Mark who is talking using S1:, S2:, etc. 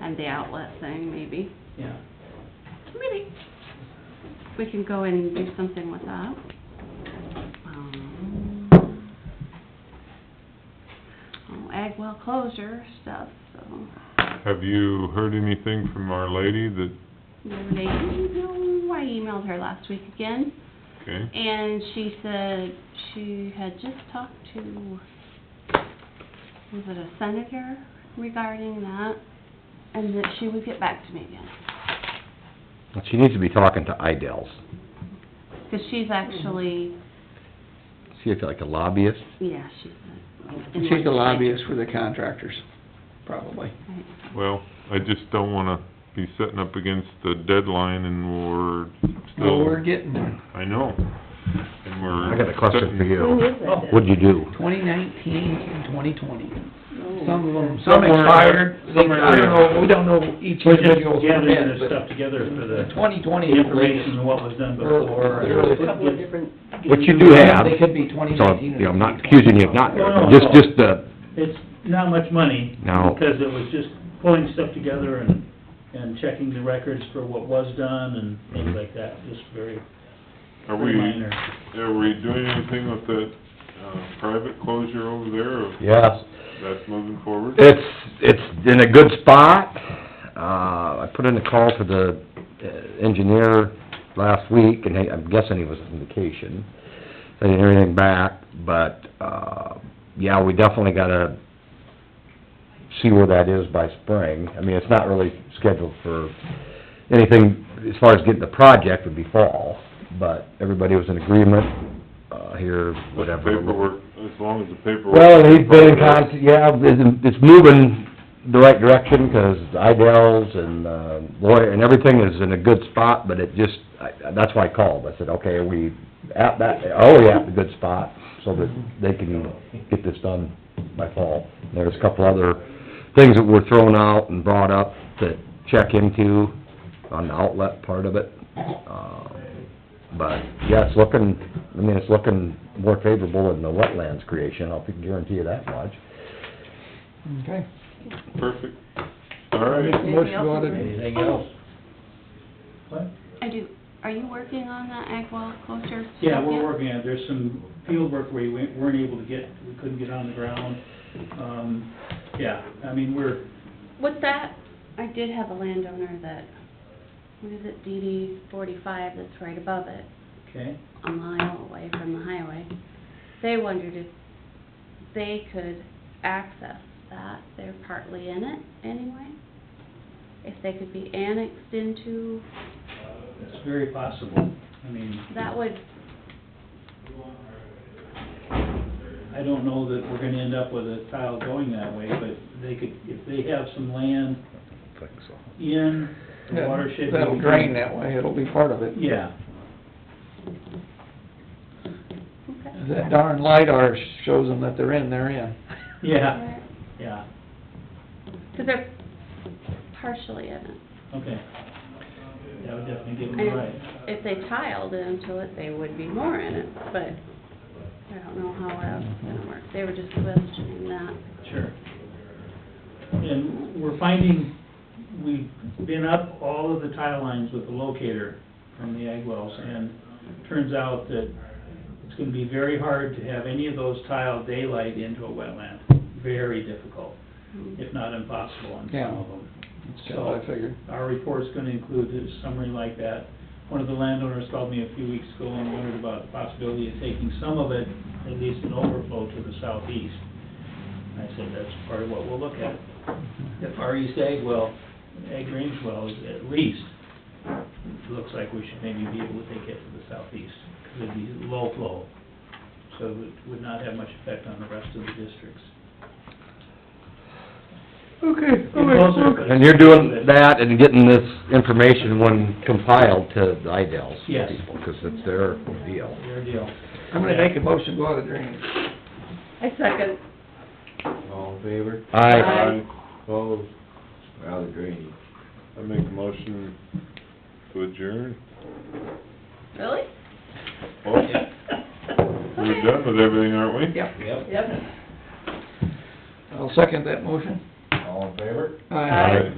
S1: and the outlet thing, maybe.
S2: Yeah.
S1: Maybe. We can go and do something with that. Um, Oh, Agwell closure stuff, so.
S3: Have you heard anything from our lady that,
S1: Another day, no, I emailed her last week again.
S3: okay,
S1: And she said she had just talked to, was it a senator regarding that? And that she would get back to me again.
S4: Well, She needs to be talking to Idells.
S1: Because she's actually,
S4: See if like a lobbyist.
S1: yeah, she's a... in
S2: She's the
S1: legislature.
S2: lobbyist for the contractors, probably.
S1: Right.
S3: well, I just don't wanna be setting up against the deadline and we're
S2: Well,
S5: Oh.
S3: still...
S2: we're getting there.
S3: I know, and we're...
S4: I got a question for
S3: setting-
S4: you.
S2: Oh.
S4: What'd you do?
S2: Twenty nineteen and twenty twenty. Some of them,
S5: Some
S2: some
S5: were-
S2: expired,
S5: some
S2: I don't
S5: are-
S2: know, we don't know each
S5: We're just
S2: individual's
S5: gathering
S2: permit,
S5: this stuff
S2: but
S5: together for
S2: the
S5: the
S2: twenty twenty is the latest.
S5: information, what was done
S2: Or- or-
S5: before.
S2: Couple of
S5: different.
S4: What you do have,
S2: They could be
S4: so,
S2: 2019 or
S4: you know, I'm not
S2: 2020.
S4: accusing you of not,
S5: No, no,
S4: just,
S5: no.
S4: just the,
S5: It's not much money.
S4: No.
S5: Because it was just pulling stuff together and, and checking the records for what was done and things like that, just very,
S3: Are
S5: very
S3: we,
S5: minor.
S3: are we doing anything with that, uh, private closure over there, or
S4: yes.
S3: that's moving forward?
S4: It's, it's in a good spot. Uh, I put in a call to the uh, engineer last week, and he- I'm guessing he was on vacation. I didn't hear anything back, but, uh, yeah, we definitely gotta see where that is by spring. I mean, it's not really scheduled for anything, as far as getting the project would be fall, but everybody was in agreement, uh, here, whatever.
S3: Paperwork, as long as the paperwork...
S4: Well, he's been in contact, yeah, it's, it's moving the right direction, 'cause Idells and, uh, lawyer, and everything is in a good spot, but it just, I, that's why I called, I said, okay, are we at that, are we at the good spot, so that they can get this done by fall. There's a couple other things that were thrown out and brought up to check into on the outlet part of it, um, but, yeah, it's looking, I mean, it's looking more favorable in the wetlands creation, I'll guarantee you that much.
S2: Okay.
S3: Perfect, all right.
S2: Motion on it.
S5: Anything else? What?
S1: I do, are you working on that Agwell closure stuff
S5: Yeah, we're
S1: yet?
S5: working on it. There's some field work where we wa- weren't able to get, we couldn't get on the ground. Um, yeah, I mean, we're,
S1: With that, I did have a landowner that, what is it, DD forty-five, that's right above it,
S5: okay,
S1: a mile away from the highway. They wondered if they could access that, they're partly in it anyway. If they could be annexed into,
S5: it's very possible. I mean,
S1: that would,
S5: I don't know that we're gonna end up with a tile going that way, but they could, if they have some land in the watershed.
S2: That'll drain that way, it'll be part of it.
S5: Yeah,
S1: okay.
S2: That darn LiDAR shows them that they're in, they're in.
S5: yeah, yeah,
S1: Cause they're partially in it.
S5: okay. That would definitely give them a
S1: And
S5: right.
S1: if they tiled into it, they would be more in it, but I don't know how that's gonna work. They were just questioning that.
S5: Sure. And we're finding, we've been up all of the tile lines with the locator from the ag wells, and turns out that it's gonna be very hard to have any of those tile daylight into a wetland. Very difficult, if not impossible on some of them.
S2: That's kinda what I figured.
S5: Our report's gonna include a summary like that. One of the landowners called me a few weeks ago and wondered about the possibility of taking some of it, at least an overflow, to the southeast. And I said, that's part of what we'll look at. The far east egg well, egg range well is at least, looks like we should maybe be able to take it to the southeast, because it'd be low flow. So it would- would not have much effect on the rest of the districts.
S2: Okay,
S5: all right, okay.
S4: And you're doing that and getting this information when compiled to the Idells
S5: Yes.
S4: people, 'cause it's their deal.
S5: Your deal.
S2: I'm gonna make a motion, go out of drainage.
S1: I second.
S6: All in favor?
S4: I,
S1: Aye.
S6: Opposed? We're out of drainage.
S3: I make a motion to adjourn.
S1: Really?
S3: Well, we're done with everything, aren't we?
S2: Yep,
S6: Yep.
S1: Yep.
S2: I'll second that motion.
S6: All in favor?
S2: Aye.
S3: All right.